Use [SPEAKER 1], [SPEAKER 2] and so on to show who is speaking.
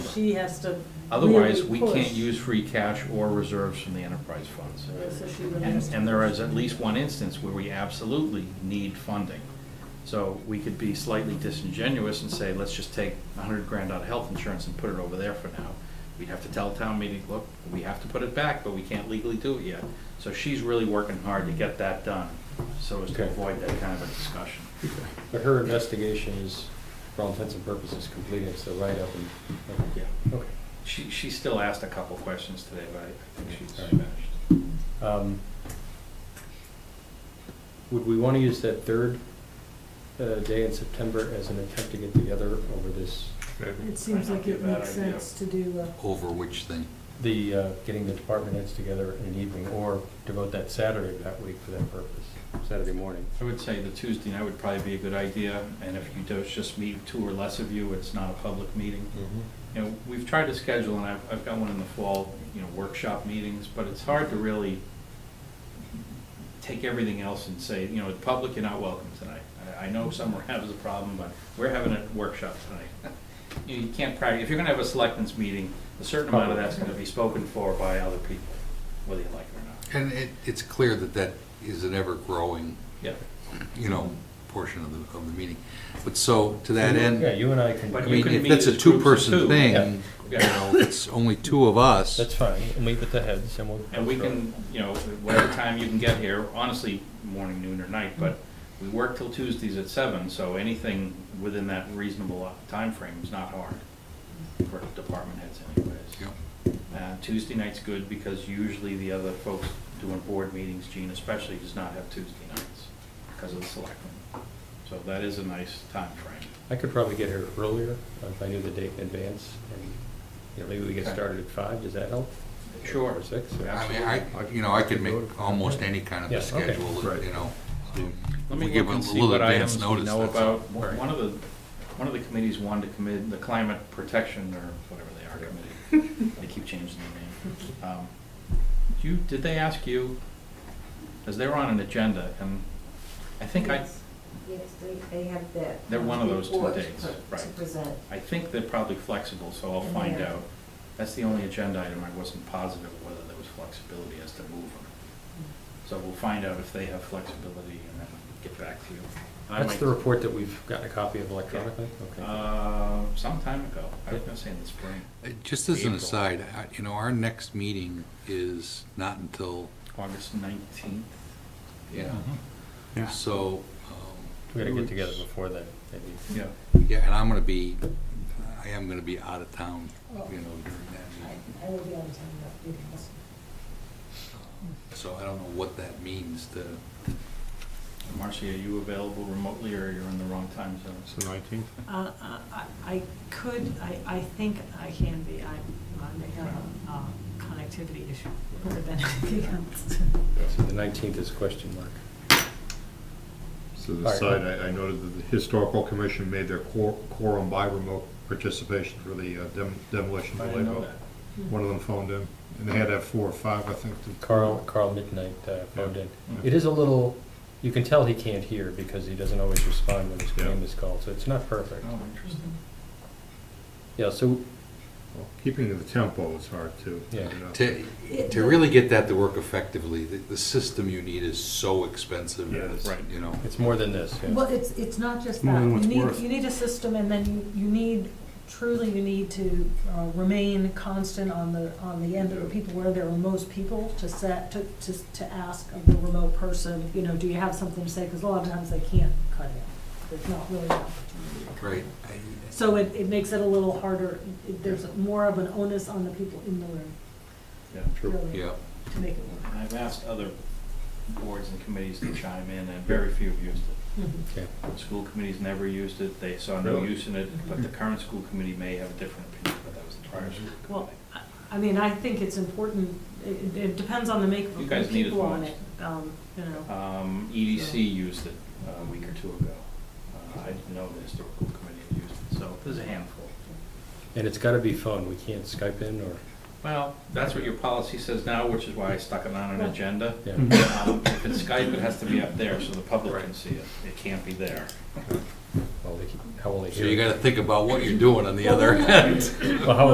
[SPEAKER 1] she has to.
[SPEAKER 2] Otherwise, we
[SPEAKER 1] really
[SPEAKER 2] can't
[SPEAKER 1] push.
[SPEAKER 2] use free cash or reserves from the enterprise funds.
[SPEAKER 1] So she really
[SPEAKER 2] And,
[SPEAKER 1] has to
[SPEAKER 2] and there
[SPEAKER 1] push.
[SPEAKER 2] is at least one instance where we absolutely need funding. So we could be slightly disingenuous and say, let's just take a hundred grand out of health insurance and put it over there for now. We'd have to tell town meeting, look, we have to put it back, but we can't legally do it yet. So she's really working hard to get that done, so as to
[SPEAKER 3] Okay.
[SPEAKER 2] avoid that kind of a discussion.
[SPEAKER 3] But her investigation is, for all intents and purposes, complete, it's the write-up and,
[SPEAKER 2] Yeah.
[SPEAKER 3] okay.
[SPEAKER 2] She, she still asked a couple questions today, but I I think she's
[SPEAKER 3] All right.
[SPEAKER 2] finished.
[SPEAKER 3] Um, Would we want to use that third uh, day in September as an attempt to get together over this,
[SPEAKER 1] It seems
[SPEAKER 2] Might not
[SPEAKER 1] like
[SPEAKER 2] be a
[SPEAKER 1] it
[SPEAKER 2] bad
[SPEAKER 1] makes
[SPEAKER 2] idea.
[SPEAKER 1] sense to do, uh,
[SPEAKER 4] Over which thing?
[SPEAKER 3] the, uh, getting the department heads together in an evening, or devote that Saturday of that week for that purpose, Saturday morning?
[SPEAKER 2] I would say the Tuesday night would probably be a good idea, and if you do, it's just meet two or less of you, it's not a public meeting. You know, we've tried to schedule, and I've, I've got one in the fall, you know, workshop meetings, but it's hard to really take everything else and say, you know, the public, you're not welcome tonight. I, I know some are having a problem, but we're having a workshop tonight. You know, you can't practice, if you're gonna have a selectmen's meeting, a certain amount of that's gonna be spoken for by other people, whether you like it or not.
[SPEAKER 4] And it, it's clear that that is an ever-growing,
[SPEAKER 2] Yeah,
[SPEAKER 4] you know, portion of the, of the meeting. But so, to that
[SPEAKER 3] Yeah,
[SPEAKER 4] end,
[SPEAKER 3] you and I can,
[SPEAKER 4] I
[SPEAKER 2] But- You
[SPEAKER 4] mean,
[SPEAKER 2] can
[SPEAKER 4] if
[SPEAKER 2] meet
[SPEAKER 4] that's a
[SPEAKER 2] as groups of two.
[SPEAKER 4] two-person thing,
[SPEAKER 3] Yeah.
[SPEAKER 4] you
[SPEAKER 2] yeah.
[SPEAKER 4] know, it's only two of us.
[SPEAKER 3] that's fine, we'll meet with the heads and we'll.
[SPEAKER 2] And we can, you know, whatever time you can get here, honestly, morning, noon, or night, but we work till Tuesdays at seven, so anything within that reasonable timeframe is not hard for department heads
[SPEAKER 4] Yeah.
[SPEAKER 2] anyways. Uh, Tuesday night's good because usually the other folks doing board meetings, Gene especially, does not have Tuesday nights because of the selectmen. So that is a nice time frame.
[SPEAKER 3] I could probably get here earlier uh, if I knew the date in advance, and, you know, maybe we get
[SPEAKER 2] Okay.
[SPEAKER 3] started at five, does that help?
[SPEAKER 2] Sure.
[SPEAKER 3] Or six? or-
[SPEAKER 4] I mean, I, you know, I could make almost any kind of
[SPEAKER 3] Yeah,
[SPEAKER 4] a
[SPEAKER 3] okay.
[SPEAKER 4] schedule,
[SPEAKER 3] Right.
[SPEAKER 4] you know.
[SPEAKER 2] Let me
[SPEAKER 4] We give
[SPEAKER 2] look and
[SPEAKER 4] a
[SPEAKER 2] see
[SPEAKER 4] little
[SPEAKER 2] what
[SPEAKER 4] advance
[SPEAKER 2] items we
[SPEAKER 4] notice,
[SPEAKER 2] know
[SPEAKER 4] that's all.
[SPEAKER 2] about. One one of the, one of the committees wanted to commit, the climate protection or whatever they are committee. They keep changing their name. Um, do You, did they ask you, because they were on an agenda, and I think I,
[SPEAKER 5] Yes, Yes, they, they have that.
[SPEAKER 2] They're one of those two
[SPEAKER 5] report to
[SPEAKER 2] days,
[SPEAKER 5] pre- To
[SPEAKER 2] right.
[SPEAKER 5] present.
[SPEAKER 2] I think they're probably flexible, so I'll find
[SPEAKER 5] Yeah.
[SPEAKER 2] out. That's the only agenda item I wasn't positive whether there was flexibility as to move them. So we'll find out if they have flexibility and then get back to you. I
[SPEAKER 3] That's
[SPEAKER 2] might-
[SPEAKER 3] the report that we've gotten a copy of electronically? Okay.
[SPEAKER 2] Uh, some time ago. I was gonna say in the spring.
[SPEAKER 4] Uh, Just as an
[SPEAKER 2] April.
[SPEAKER 4] aside, I- you know, our next meeting is not until,
[SPEAKER 2] August nineteenth.
[SPEAKER 4] you know,
[SPEAKER 6] Yeah.
[SPEAKER 4] so. um,
[SPEAKER 3] We gotta get together before then, maybe.
[SPEAKER 2] Yeah.
[SPEAKER 4] Yeah, and I'm gonna be, I am gonna be out of town, you know, during that
[SPEAKER 5] I
[SPEAKER 4] meeting.
[SPEAKER 5] I will be on the time of meetings.
[SPEAKER 4] So I don't know what that means to,
[SPEAKER 2] Marcy, are you available remotely or you're in the wrong time zone?
[SPEAKER 6] So nineteenth?
[SPEAKER 7] Uh, uh, I I could, I, I think I can be, I, I may have a uh, connectivity issue more than anything else.
[SPEAKER 3] So the nineteenth is question mark.
[SPEAKER 6] So
[SPEAKER 3] All
[SPEAKER 6] the
[SPEAKER 3] right.
[SPEAKER 6] side, I, I noted that the historical commission made their quor- quorum by remote participation for the uh, dem- demolition.
[SPEAKER 2] I
[SPEAKER 6] delay
[SPEAKER 2] didn't know
[SPEAKER 6] vote.
[SPEAKER 2] that.
[SPEAKER 6] One of them phoned in, and they had to have four or five, I think, to.
[SPEAKER 3] Carl, Carl Midnight uh, phoned in.
[SPEAKER 2] Yeah. Mm-hmm.
[SPEAKER 3] It is a little, you can tell he can't hear because he doesn't always respond when his
[SPEAKER 6] Yeah.
[SPEAKER 3] name is called, so it's not perfect.
[SPEAKER 2] Oh,
[SPEAKER 7] Mm-hmm.
[SPEAKER 2] interesting.
[SPEAKER 3] Yeah, so,
[SPEAKER 6] Well, Keeping the tempo is hard too.
[SPEAKER 3] Yeah.
[SPEAKER 6] You know.
[SPEAKER 4] to, to really get that to work effectively, the, the system you need is so expensive,
[SPEAKER 6] Yeah,
[SPEAKER 4] it's,
[SPEAKER 2] right.
[SPEAKER 4] you know.
[SPEAKER 3] it's more than this, yeah.
[SPEAKER 7] Well, it's, it's not just
[SPEAKER 6] More
[SPEAKER 7] that.
[SPEAKER 6] than
[SPEAKER 7] You
[SPEAKER 6] what's
[SPEAKER 7] need,
[SPEAKER 6] worth.
[SPEAKER 7] you need a system and then you, you need, truly you need to uh, remain constant on the, on the end of the people where there are most people to set, to, to, to ask of the remote person, you know, do you have something to say? Because a lot of times they can't cut it. There's not really an opportunity. to cut
[SPEAKER 4] Right. I-
[SPEAKER 7] So it, it makes it a little harder, It- there's more of an onus on the people in the room,
[SPEAKER 2] Yeah.
[SPEAKER 7] really,
[SPEAKER 4] Yeah,
[SPEAKER 7] to make it work.
[SPEAKER 2] And I've asked other boards and committees to chime in and very few have used it.
[SPEAKER 7] Mhm.
[SPEAKER 3] Okay.
[SPEAKER 2] The School committee's never used it. They saw no
[SPEAKER 6] Really?
[SPEAKER 2] use in it, but the current school committee may have a different opinion, but that was the prior school
[SPEAKER 7] Well,
[SPEAKER 2] committee.
[SPEAKER 7] I- I mean, I think it's important, it, it depends on the makeup
[SPEAKER 2] You
[SPEAKER 7] of
[SPEAKER 2] guys
[SPEAKER 7] the
[SPEAKER 2] need it
[SPEAKER 7] people on
[SPEAKER 2] most.
[SPEAKER 7] it, um, you know.
[SPEAKER 2] Um, EDC used it uh, a week or two ago. Uh, I didn't know the historical committee had used it, so there's a handful.
[SPEAKER 3] And it's gotta be phone, we can't Skype in or,
[SPEAKER 2] Well, that's what your policy says now, which is why I stuck it on an agenda.
[SPEAKER 3] yeah.
[SPEAKER 2] Um, If it's Skype, it has to be up there so the public can see it. It can't be there.
[SPEAKER 3] Well, they can- How will they
[SPEAKER 4] so
[SPEAKER 3] hear?
[SPEAKER 4] you
[SPEAKER 3] it?
[SPEAKER 4] gotta think about what you're doing on the other end.
[SPEAKER 3] Well, how